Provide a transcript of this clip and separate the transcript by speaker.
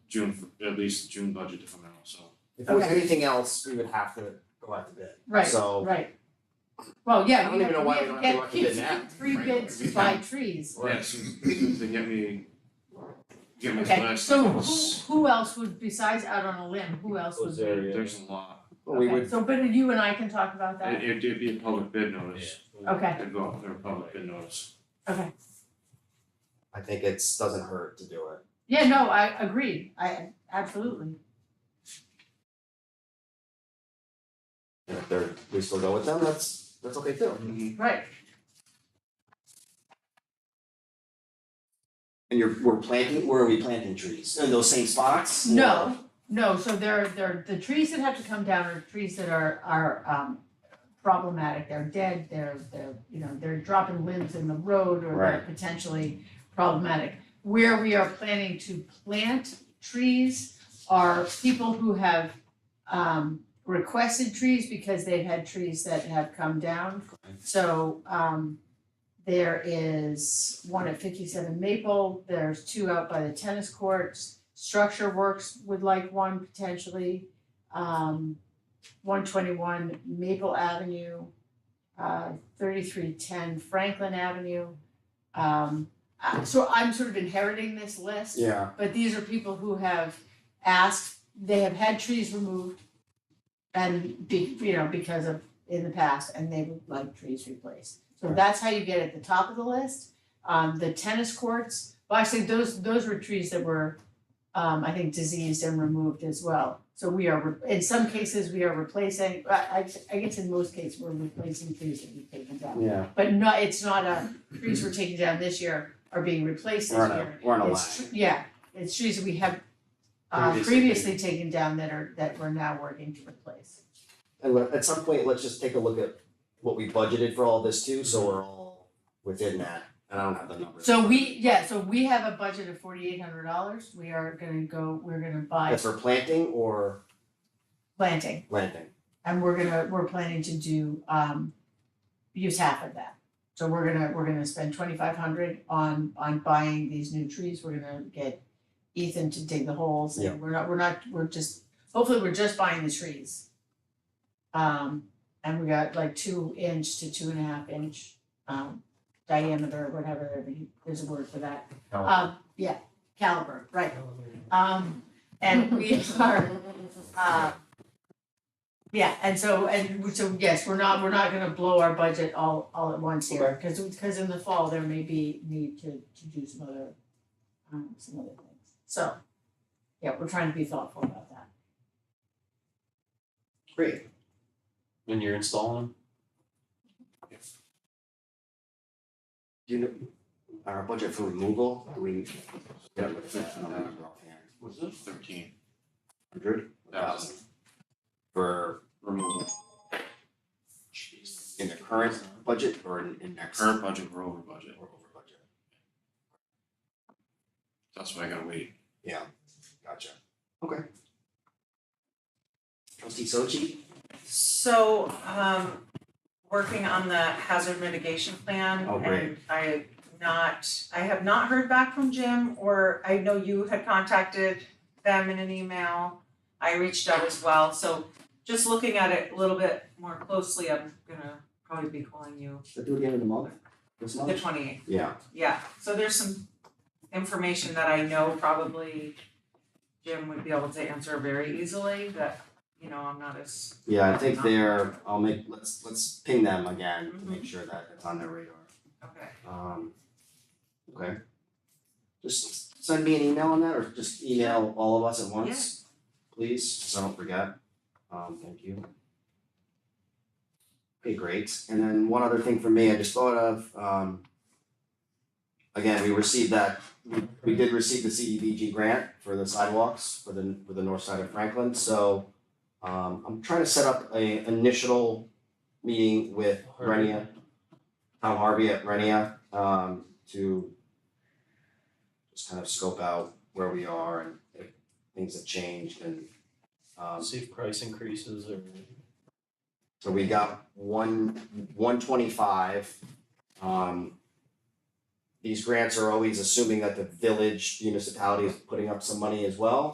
Speaker 1: June, for- at least the June budget if I'm out, so.
Speaker 2: If there was
Speaker 3: Okay.
Speaker 2: anything else, we would have to go out to bid.
Speaker 3: Right,
Speaker 2: So
Speaker 3: right. Well, yeah,
Speaker 2: I don't
Speaker 3: we
Speaker 2: even know why we
Speaker 3: have,
Speaker 2: don't
Speaker 3: we
Speaker 2: have
Speaker 3: have
Speaker 2: to
Speaker 3: to
Speaker 2: look at
Speaker 3: get three
Speaker 1: that,
Speaker 3: bids
Speaker 1: frankly.
Speaker 3: by trees.
Speaker 1: Yes, if they get me, get me to
Speaker 3: Okay,
Speaker 1: last
Speaker 3: so
Speaker 1: month's,
Speaker 3: who, who else would, besides out on a limb, who else would be?
Speaker 1: there's a lot.
Speaker 2: we
Speaker 3: Okay,
Speaker 2: would,
Speaker 3: so but you and I can talk about that,
Speaker 1: It it'd be a public bid notice,
Speaker 3: okay,
Speaker 1: it'd go out there, a public bid notice.
Speaker 3: okay.
Speaker 2: I think it's, doesn't hurt to do it.
Speaker 3: Yeah, no, I agree, I, absolutely.
Speaker 2: And if they're, we still go with them, that's, that's okay too.
Speaker 3: Right,
Speaker 2: And you're, we're planting, where are we planting trees? In those same spots?
Speaker 3: no, no, so there, there, the trees that have to come down are trees that are, are, um, problematic, they're dead, they're, they're, you know, they're dropping limbs in the road or they're
Speaker 2: Right.
Speaker 3: potentially problematic. Where we are planning to plant trees are people who have, um, requested trees because they've had trees that have come down. So, um, there is one at fifty-seven Maple, there's two out by the tennis courts. Structure Works would like one potentially. Um, one twenty-one Maple Avenue, uh, thirty-three ten Franklin Avenue. Um, uh, so I'm sort of inheriting this list.
Speaker 2: Yeah,
Speaker 3: But these are people who have asked, they have had trees removed and be, you know, because of in the past, and they would like trees replaced. So
Speaker 2: Right.
Speaker 3: that's how you get at the top of the list. Um, the tennis courts, well, actually, those, those were trees that were, um, I think diseased and removed as well. So we are, re- in some cases, we are replacing, I, I, I guess in most cases, we're replacing trees that we've taken down.
Speaker 2: yeah,
Speaker 3: But no, it's not a, trees we're taking down this year are being replaced this
Speaker 2: we're
Speaker 3: year.
Speaker 2: on a, we're on a line.
Speaker 3: It's, tr- yeah, it's trees that we have uh
Speaker 2: Previously.
Speaker 3: previously taken down that are, that we're now working to replace.
Speaker 2: And let- at some point, let's just take a look at what we budgeted for all this too, so we're all within that, and I don't have the numbers.
Speaker 3: So we, yeah, so we have a budget of forty-eight hundred dollars, we are gonna go, we're gonna buy
Speaker 2: That's for planting or
Speaker 3: planting,
Speaker 2: planting?
Speaker 3: and we're gonna, we're planning to do, um, use half of that. So we're gonna, we're gonna spend twenty-five hundred on, on buying these new trees, we're gonna get Ethan to dig the holes,
Speaker 2: Yeah.
Speaker 3: and we're not, we're not, we're just, hopefully, we're just buying the trees. Um, and we got like two inch to two and a half inch, um, diameter, whatever, there's a word for that. Um, yeah, caliber, right. Um, and we are, uh, yeah, and so, and we- so, yes, we're not, we're not gonna blow our budget all, all at once here, cause, cause in the fall, there may be need to, to do some other, um, some other things. So, yeah, we're trying to be thoughtful about that.
Speaker 2: Great.
Speaker 4: when you're installing
Speaker 2: Do you know, our budget for removal, do we?
Speaker 1: Yeah.
Speaker 4: Was it?
Speaker 1: Thirteen
Speaker 2: Hundred
Speaker 1: thousand
Speaker 2: for
Speaker 1: removal,
Speaker 2: in the current budget or in in next?
Speaker 1: current budget, we're over budget,
Speaker 2: Or over budget,
Speaker 1: that's why I gotta wait.
Speaker 2: gotcha, okay. Trustee Sochi?
Speaker 5: So, um, working on the hazard mitigation plan.
Speaker 2: Oh, great.
Speaker 5: And I not, I have not heard back from Jim, or I know you had contacted them in an email. I reached out as well, so just looking at it a little bit more closely, I'm gonna probably be calling you
Speaker 2: Should I do it again in the month, this
Speaker 5: the twenty eighth.
Speaker 2: Yeah,
Speaker 5: Yeah, so there's some information that I know probably Jim would be able to answer very easily, that, you know, I'm not as
Speaker 2: yeah, I think they're, I'll make, let's let's ping them again to
Speaker 5: Mhm.
Speaker 2: make sure that it's on their radar.
Speaker 5: Okay,
Speaker 2: Um, okay. Just send me an email on that or just email all of us at once, please, so I don't forget. Um, thank you. Okay, great. And then one other thing for me, I just thought of, um, again, we received that, we, we did receive the CDBG grant for the sidewalks for the, for the north side of Franklin, so um, I'm trying to set up a initial meeting with
Speaker 4: Harvey.
Speaker 2: Renia, Tom Harvey at Renia, um, to just kind of scope out where we are and if things have changed and, um,
Speaker 4: see if price increases or
Speaker 2: so we got one, one twenty-five. Um. These grants are always assuming that the village municipality is putting up some money as well,